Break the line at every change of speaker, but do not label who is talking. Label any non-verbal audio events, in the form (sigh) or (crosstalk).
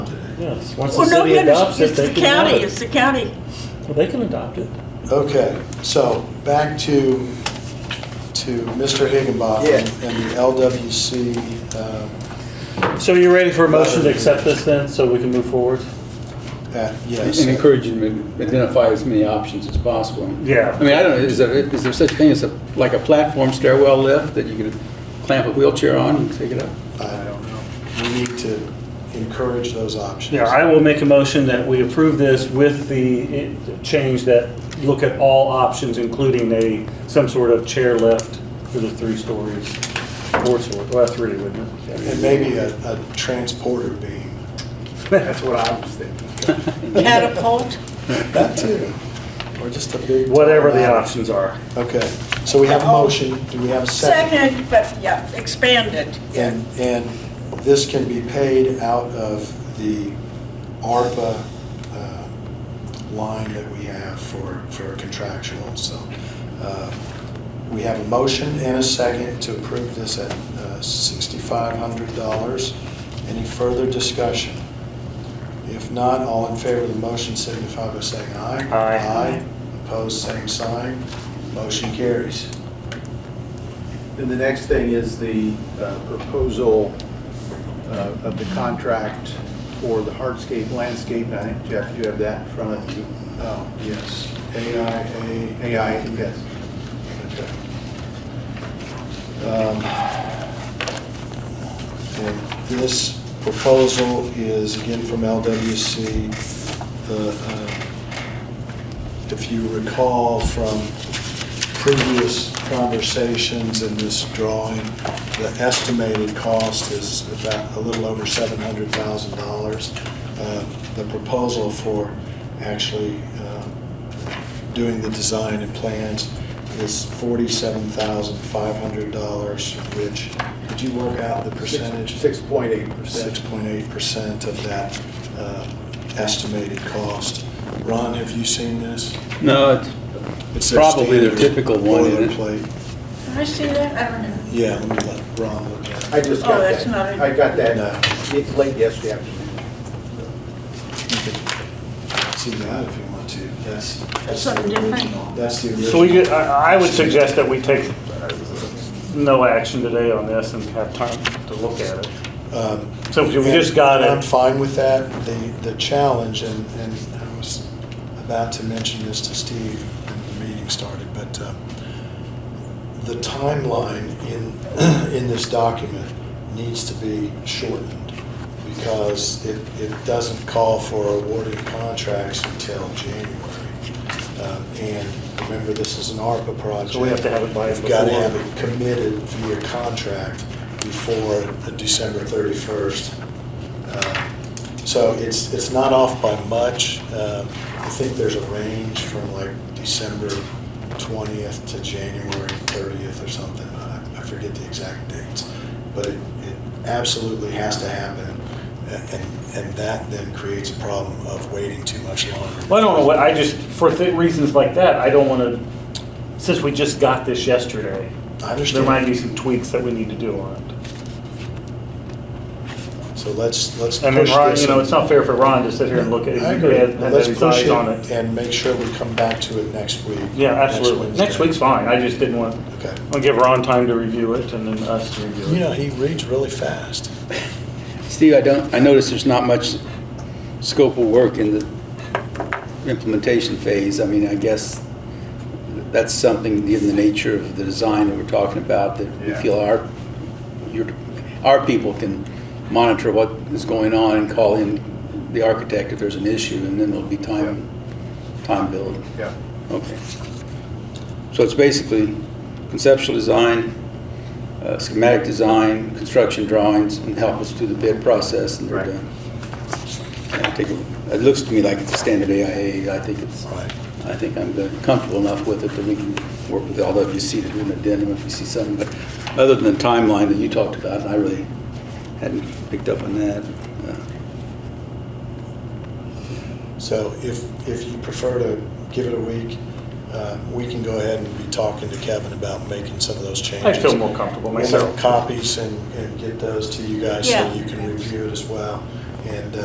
Yes, once the
Well, Oh, no,
city
we
adopts it,
understand, it's the
they can have
county,
it.
it's the county.
Well, They can adopt it.
Okay, so back to, to Mr. Higginbotham
Yeah.
and the LWC. um,
So you're ready for a motion to accept this then, so we can move forward?
that- Yes.
And encourage them to identify as many options as possible.
Yeah.
I mean, I don't know, is there, is there such a thing as a, like a platform stairwell lift that you could clamp a wheelchair on and take it up?
I don't know. We need to encourage those options.
Yeah, I will make a motion that we approve this with the eh, change that look at all options, including a, some sort of chair lift for the three stories. Four stories, well, three, wouldn't it?
And maybe a, a transporter beam.
(laughs) That's what I was thinking.
Catapult,
That too. Or just a big.
Whatever the options are.
Okay, so we have a motion. Do we have a second?
second, but yeah, expanded.
And, and this can be paid out of the ARPA uh, line that we have for, for contractual. So uh, we have a motion and a second to approve this at uh, $6,500. Any further discussion? If not, all in favor of the motion signify by saying aye.
Aye.
Aye. Opposed, same sign. Motion carries.
And the next thing is the uh, proposal uh, of the contract for the hardscape landscape. And I think, Jeff, you have that in front of you.
Oh, yes. AIA.
AI, yes.
Um, and This proposal is again from LWC. The, uh, If you recall from previous conversations in this drawing, the estimated cost is about a little over $700,000. Uh, The proposal for actually uh, doing the design and plans is $47,500, which, did you work out the percentage?
Six point eight percent.
6.8% of that uh, estimated cost. Ron, have you seen this?
No, it's
It's their
Probably their
standard
typical one, isn't it?
Boilerplate.
Did I see that? I don't know.
Yeah, let me let Ron look at it.
I just
Oh,
got that.
that's not it.
I got
No.
that It's late yesterday afternoon.
See that if you want to. That's, that's the
Something different?
original. That's the original.
So we, could- I I would suggest that we take uh, no action today on this and have time to look at it.
Um,
So we just got
And I'm
it.
fine with that. The, the challenge, and, and I was about to mention this to Steve when the meeting started, but uh, the timeline in, (clears throat) in this document needs to be shortened because it, it doesn't call for awarding contracts until January. Um, And remember, this is an ARPA project.
So we have to have it by
We've got to
before.
have it committed via contract before the December 31st. Uh, So it's, it's not off by much. Uh, I think there's a range from like December 20th to January 30th or something. I I forget the exact dates. But it it absolutely has to happen, A- and, and that then creates a problem of waiting too much longer.
Well, I don't know what, I just, for th- reasons like that, I don't want to, since we just got this yesterday,
I
there
understand.
might be some tweaks that we need to do on it.
So let's, let's push
And then
this.
Ron, you know,
and-
it's not fair for Ron to sit here and look at it
I
and
agree.
have
Let's
his
push
eyes
it
on it.
and make sure we come back to it next week.
Yeah, absolutely. Next
Wednesday.
week's fine, I just didn't want,
Okay.
I'll give Ron time to review it and then us to
You
review
know,
it.
he reads really fast.
Steve, I don't, I notice there's not much scope of work in the implementation phase. I mean, I guess that's something, given the nature of the design that we're talking about, that we
Yeah.
feel our, your, our people can monitor what is going on and call in the architect if there's an issue, and then there'll be time, time billed.
Yeah.
Okay. So it's basically conceptual design, uh, schematic design, construction drawings, and help us through the bid process, and they're
Right.
done. And I take a- It looks to me like it's a standard AIA. I think it's,
Right.
I think I'm good- comfortable enough with it that we can work with all of you, see to do an addendum if you see something. But other than the timeline that you talked about, I really hadn't picked up on that. Uh,
So if, if you prefer to give it a week, uh, we can go ahead and be talking to Kevin about making some of those changes.
I feel more comfortable
We'll make
myself.
copies and, and get those to you guys so
Yeah.
you can review it as well. And uh,